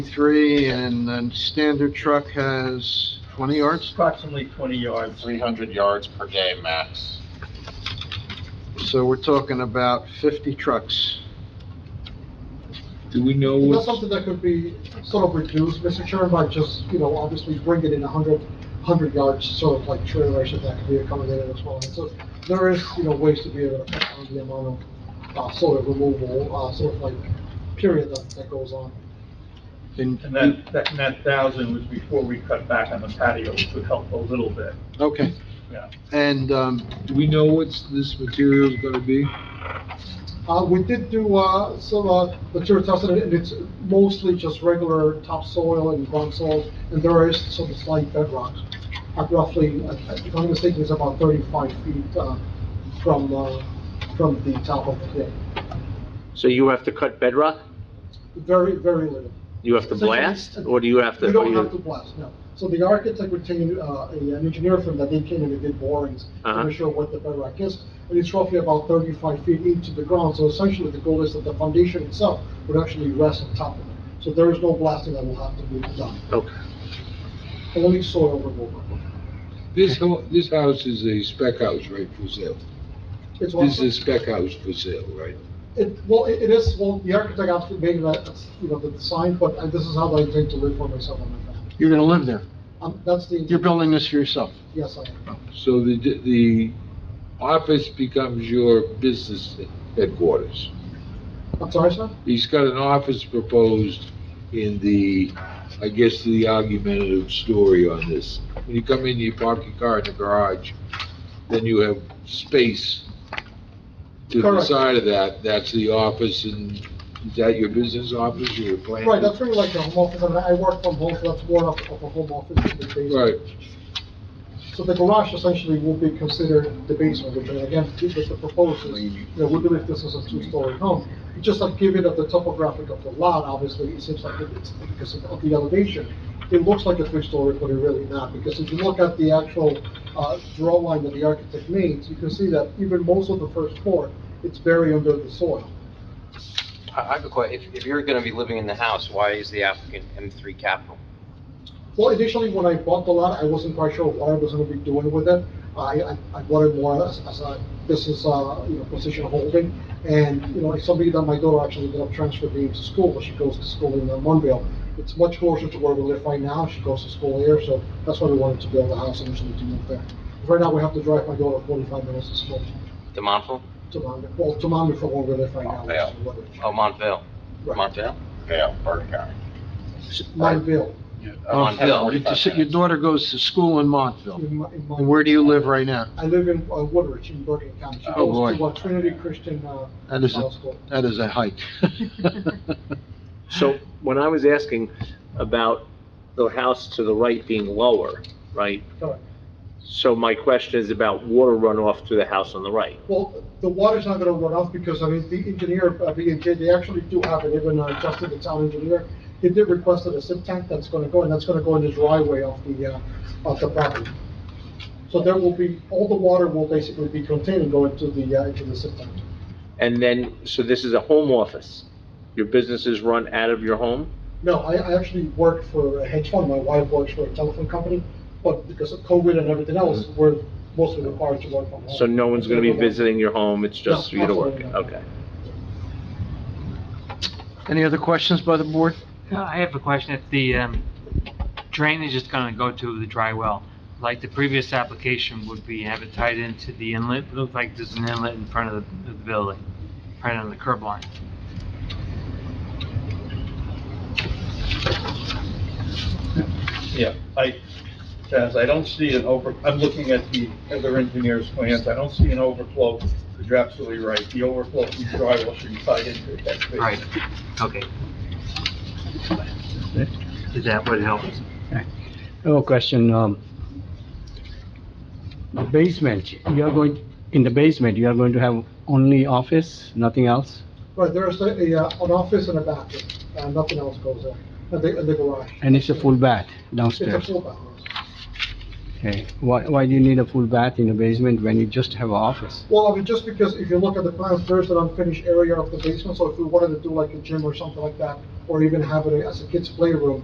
three, and then standard truck has twenty yards, approximately 20 yards. 300 yards per day max. so we're talking about fifty trucks. Do we know Is that what's, something that could be sort of reduced, Mr. Chairman, by just, you know, obviously bring it in a hundred, hundred yards, sort of like trailers, if that could be accommodated as well? And So there is, you know, ways to be able to cut down the amount of, uh, sort of removal, uh, sort of like period that, that goes on. And that, that, and that thousand was before we cut back on the patio, which would help a little bit, Okay, yeah. and, um, do we know what's this material's gonna be? Uh, we did do, uh, some, uh, material testing, and it's mostly just regular topsoil and ground soil, and there is some slight bedrock. At roughly, uh, if I'm mistaken, it's about thirty-five feet, uh, from, uh, from the top of the pit. So you have to cut bedrock? Very, very little. You have to blast, or do you have to? We or don't you- have to blast, no. So the architect retained, uh, a- an engineer firm that they came in and did borings to Uh-huh. make sure what the bedrock is, and it's roughly about thirty-five feet into the ground, so essentially the goal is that the foundation itself would actually rest on top of it. So there is no blasting that will have to be done, Okay. only soil removal. This ho, this house is a spec house, right, for sale? It's one- This is a spec house for sale, right? It, well, it it is, well, the architect actually made that, that's, you know, the design, but uh, this is how I intend to live for myself and my family. you're gonna live there, Um, that's the, you're building this for yourself. yes, I am. So the, the office becomes your business headquarters. I'm sorry, sir? He's got an office proposed in the, I guess, the argumentative story on this. When you come in, you park your car in the garage, then you have space to the Correct. side of that, that's the office, and is that your business office, or your plan? Right, that's really like the home office, I mean, I work from home, so that's more of of a home office in the basement. Right, So the garage essentially will be considered the basement, which and again, this is the proposal, you know, we believe this is a two-story home. Just like given that the topographic of the lot, obviously, it seems like it's, because of the elevation, it looks like a three-story, but it really not, because if you look at the actual, uh, draw line that the architect made, you can see that even most of the first floor, it's buried under the soil. I I have a question. If, if you're gonna be living in the house, why is the applicant M3 Capital? Well, initially, when I bought the lot, I wasn't quite sure what I was gonna be doing with it. I, I, I wanted more as, as a business, uh, you know, position holding. And, you know, it's something that my daughter actually ended up transferring me to school, but she goes to school in uh, Monville. It's much closer to where we live right now, she goes to school here, so that's why we wanted to build a house initially to move there. Right now, we have to drive my daughter forty-five minutes to school, The Montville? to Monville, well, to Monville for where we live right now. which is Woodbridge. Oh, Montville. Right. Montville? Yeah, Burke County. Monville, Montville, Your- your daughter goes to school in Montville, in Mon- in Monville. and where do you live right now? I live in uh, Woodbridge in Bergen County. She Oh, goes to boy. uh, Trinity Christian uh, That is, High a School. that is a hike. So when I was asking about the house to the right being lower, right? Correct. So my question is about water runoff to the house on the right. Well, the water's not gonna run off because, I mean, the engineer, B and J, they actually do have it, even uh, Justin, the town engineer, he did request a sip tank that's gonna go, and that's gonna go in the driveway of the, uh, of the property. So there will be, all the water will basically be contained and go into the, uh, into the sip tank. And then, so this is a home office. Your business is run out of your home? No, I, I actually work for a hedge fund, my wife works for a telephone company, but because of COVID and everything else, we're mostly required to work from home. Mm-hmm. So no one's gonna be Everyone- visiting your home, it's just No, you to work? absolutely not. Okay. Any other questions by the board? Uh, I have a question. If the um, drainage is going to go to the dry well, like the previous application would be have it tied into the inlet, it looks like there's an inlet in front of the of the building, right on the curb line. Yeah, I, Chaz, I don't see an over, I'm looking at the other engineer's plans, I don't see an overflow, but you're absolutely right, the overflow from the drywall should be tied into it, that's Right, okay. Is that what helps? I have a question, um, the basement, you are going, in the basement, you are going to have only office, nothing else? Right, there's a, a, uh, an office and a bathroom, uh, nothing else goes there, and the, and the garage. And it's a full bath It's a downstairs? full bathroom. Okay, why, why do you need a full bath in the basement when you just have an office? Well, I mean, just because if you look at the plans, there's an unfinished area of the basement, so if we wanted to do like a gym or something like that, or even have it as a kid's playroom,